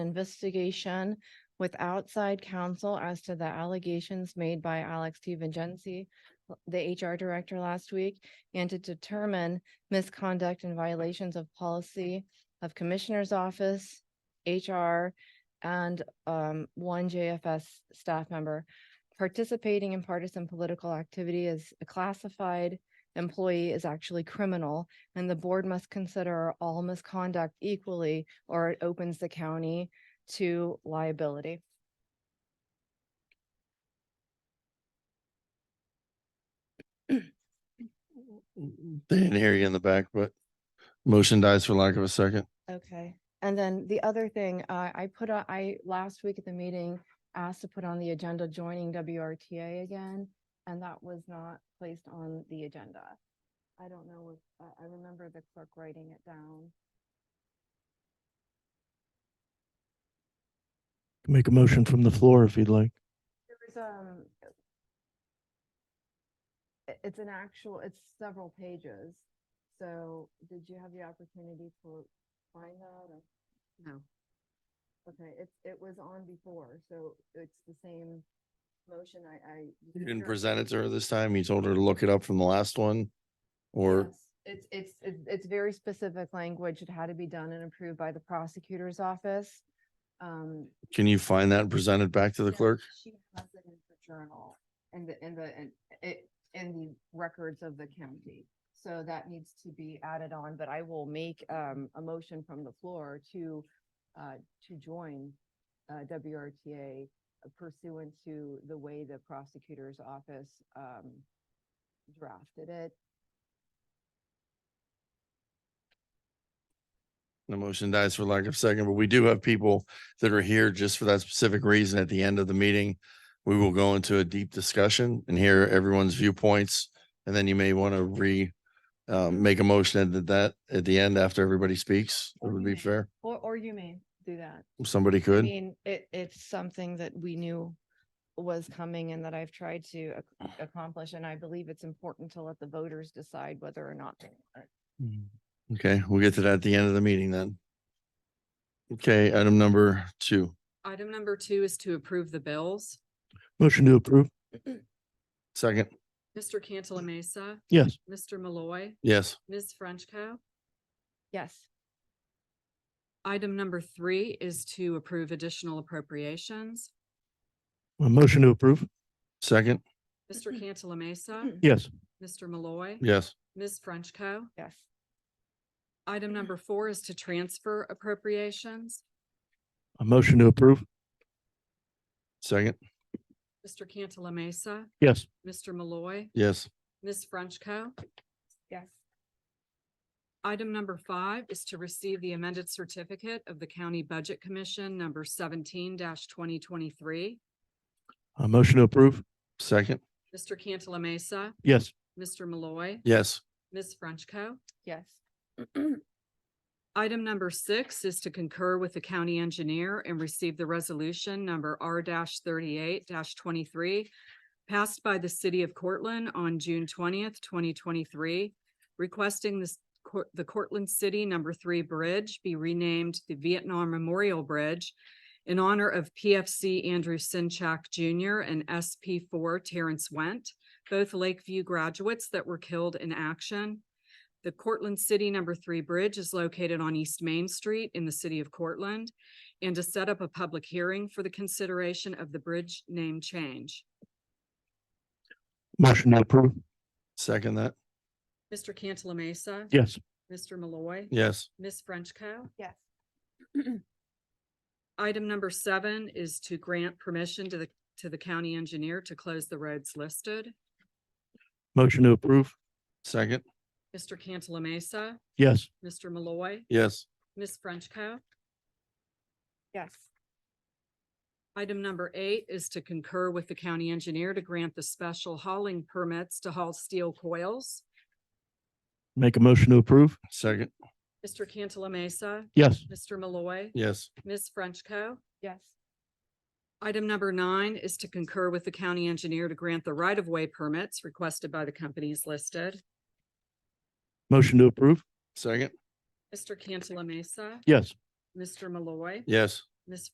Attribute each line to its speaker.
Speaker 1: investigation with outside counsel as to the allegations made by Alex T. Vincenzi, the HR director last week, and to determine misconduct and violations of policy of Commissioner's Office, HR, and um, one JFS staff member. Participating in partisan political activity is a classified employee is actually criminal, and the board must consider all misconduct equally, or it opens the county to liability.
Speaker 2: They didn't hear you in the back, but motion dies for lack of a second.
Speaker 1: Okay. And then the other thing, uh, I put, a- I, last week at the meeting, asked to put on the agenda joining WRTA again, and that was not placed on the agenda. I don't know if, I, I remember the clerk writing it down.
Speaker 3: Make a motion from the floor if you'd like.
Speaker 1: There was, um, i- it's an actual, it's several pages. So did you have the opportunity to find that or?
Speaker 4: No.
Speaker 1: Okay, it, it was on before, so it's the same motion I, I. was
Speaker 2: You didn't
Speaker 1: curious.
Speaker 2: present it to her this time. You told her to look it up from the last one. Or,
Speaker 1: Yes, It's, it's, it's- it's very specific language. It had to be done and approved by the prosecutor's office. Um,
Speaker 2: can you find that and present it back to the
Speaker 1: No,
Speaker 2: clerk?
Speaker 1: She has it in the journal and the, in the, in it, in the records of the county. So that needs to be added on, but I will make um a motion from the floor to uh to join uh WRTA pursuant to the way the prosecutor's office um drafted it.
Speaker 2: The motion dies for lack of second, but we do have people that are here just for that specific reason. At the end of the meeting, we will go into a deep discussion and hear everyone's viewpoints. And then you may want to re, um, make a motion at that, at the end after everybody speaks. It would be
Speaker 1: Okay.
Speaker 2: fair.
Speaker 1: Or or you may do that.
Speaker 2: Somebody
Speaker 1: I
Speaker 2: could.
Speaker 1: mean, it, it's something that we knew was coming and that I've tried to ac- accomplish, and I believe it's important to let the voters decide whether or not. they want it.
Speaker 2: Okay, we'll get to that at the end of the meeting then. Okay, item number two,
Speaker 4: Item number two is to approve the bills.
Speaker 3: Motion to approve?
Speaker 2: second,
Speaker 4: Mr. Cantala Mesa,
Speaker 3: Yes.
Speaker 4: Mr. Malloy,
Speaker 2: yes,
Speaker 4: Ms. Frenchco.
Speaker 1: Yes,
Speaker 4: Item number three is to approve additional appropriations.
Speaker 3: A motion to approve?
Speaker 2: second,
Speaker 4: Mr. Cantala Mesa,
Speaker 3: Yes.
Speaker 4: Mr. Malloy,
Speaker 2: yes,
Speaker 4: Ms. Frenchco.
Speaker 1: yes,
Speaker 4: Item number four is to transfer appropriations.
Speaker 3: A motion to approve?
Speaker 2: second,
Speaker 4: Mr. Cantala Mesa,
Speaker 3: Yes.
Speaker 4: Mr. Malloy,
Speaker 2: yes,
Speaker 4: Ms. Frenchco.
Speaker 1: yes,
Speaker 4: Item number five is to receive the amended certificate of the County Budget Commission number seventeen twenty twenty-three.
Speaker 3: A motion to approve?
Speaker 2: second,
Speaker 4: Mr. Cantala Mesa,
Speaker 3: Yes.
Speaker 4: Mr. Malloy,
Speaker 2: yes,
Speaker 4: Ms. Frenchco.
Speaker 1: yes,
Speaker 4: Item number six is to concur with the county engineer and receive the resolution number R thirty-eight twenty-three passed by the city of Cortland on June twentieth, twenty twenty-three, requesting this, Cor- the Cortland City Number Three Bridge be renamed the Vietnam Memorial Bridge in honor of PFC Andrew Sinchak Junior and SP four Terrence Went, both Lakeview graduates that were killed in action. The Cortland City Number Three Bridge is located on East Main Street in the city of Cortland and to set up a public hearing for the consideration of the bridge name change.
Speaker 3: Motion to approve?
Speaker 2: second that,
Speaker 4: Mr. Cantala Mesa.
Speaker 3: Yes.
Speaker 4: Mr. Malloy.
Speaker 2: yes,
Speaker 4: Ms. Frenchco.
Speaker 1: yes,
Speaker 4: Item number seven is to grant permission to the, to the county engineer to close the roads listed.
Speaker 3: Motion to approve?
Speaker 2: second,
Speaker 4: Mr. Cantala Mesa.
Speaker 3: Yes.
Speaker 4: Mr. Malloy.
Speaker 2: yes,
Speaker 4: Ms. Frenchco.
Speaker 1: yes,
Speaker 4: Item number eight is to concur with the county engineer to grant the special hauling permits to haul steel coils.
Speaker 3: Make a motion to approve?
Speaker 2: second,
Speaker 4: Mr. Cantala Mesa,
Speaker 3: Yes.
Speaker 4: Mr. Malloy,
Speaker 2: yes,
Speaker 4: Ms. Frenchco.
Speaker 1: yes,
Speaker 4: Item number nine is to concur with the county engineer to grant the right-of-way permits requested by the companies listed.
Speaker 3: Motion to approve?
Speaker 2: second,
Speaker 4: Mr. Cantala Mesa,
Speaker 3: Yes.
Speaker 4: Mr. Malloy,
Speaker 2: yes,
Speaker 4: Ms.